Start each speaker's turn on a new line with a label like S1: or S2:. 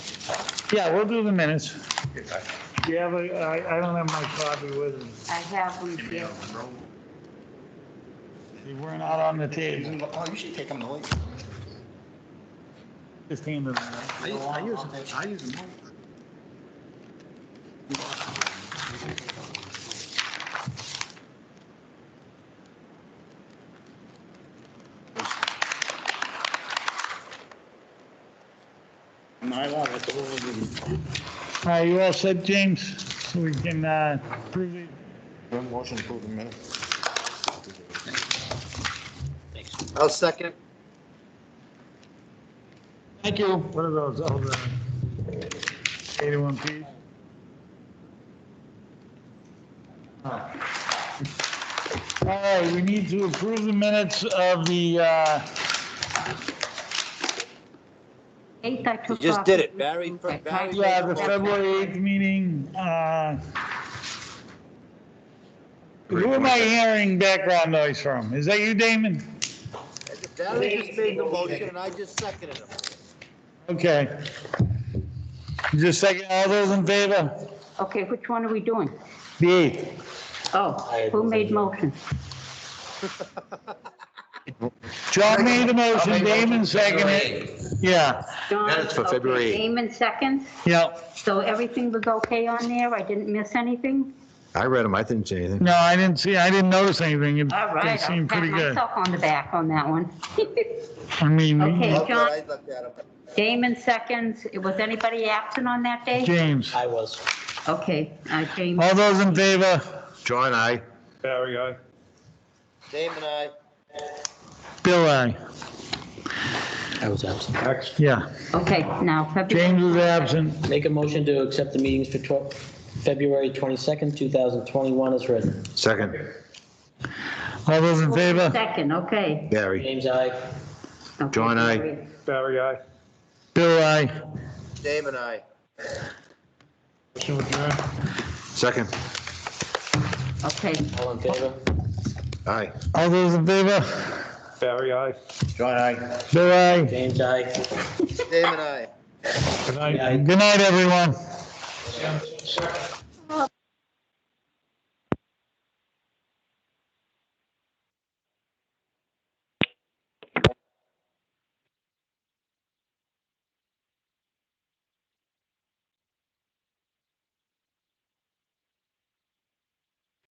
S1: Yeah, we'll do the minutes.
S2: Do you have a, I, I don't have my copy with me.
S3: I have them here.
S2: They were not on the table.
S4: Oh, you should take them to Lee.
S2: Just hand them out.
S4: I use, I use, I use them. My lot, that's all we do.
S2: All right, you all set, James? We can, uh, prove it.
S5: Motion to approve the minutes.
S6: I'll second.
S2: Thank you. What are those, all the eighty-one Ps? All right, we need to approve the minutes of the, uh,
S3: Eighth I took
S6: You just
S3: off.
S6: did it, Barry. Barry-
S2: yeah, the February eighth meeting, uh. Who am I hearing background noise from? Is that you, Damon?
S6: Barry just made the motion and I just seconded him.
S2: Okay. Just second, all those in favor?
S3: Okay, which one are we doing?
S2: The eighth.
S3: Oh, who made motion?
S2: John made the motion, Damon seconded it. Yeah,
S3: John,
S5: Minutes for
S3: okay,
S5: February eighth.
S3: Damon seconds,
S2: yeah.
S3: so everything was okay on there? I didn't miss anything?
S5: I read them, I didn't say anything.
S2: No, I didn't see, I didn't notice anything. It
S3: All
S2: it
S3: right, I'll
S2: seemed
S3: pat
S2: pretty good.
S3: myself on the back on that one.
S2: I mean,
S3: Okay.
S6: Look what I looked at him.
S3: Damon seconds, was anybody absent on that day?
S2: James,
S6: I was.
S3: Okay, uh, James,
S2: all those in favor?
S5: John, I.
S1: Barry, aye.
S6: Dame and I.
S2: Bill, aye.
S7: I was absent.
S2: Yeah,
S3: okay, now February.
S2: James is absent.
S7: Make a motion to accept the meetings for tw- February 22nd, 2021 as written.
S5: Second,
S2: All those in favor?
S3: Second, okay.
S5: Barry.
S7: James, I.
S3: Okay,
S5: John, aye.
S3: February.
S1: Barry, aye.
S2: Bill, aye.
S6: Dame and I.
S5: Second,
S3: Okay,
S7: All in favor?
S5: aye.
S2: All those in favor?
S1: Barry, aye.
S5: John, I.
S2: Bill, aye.
S7: James, I.
S6: Dame and I.
S2: Good night, everyone.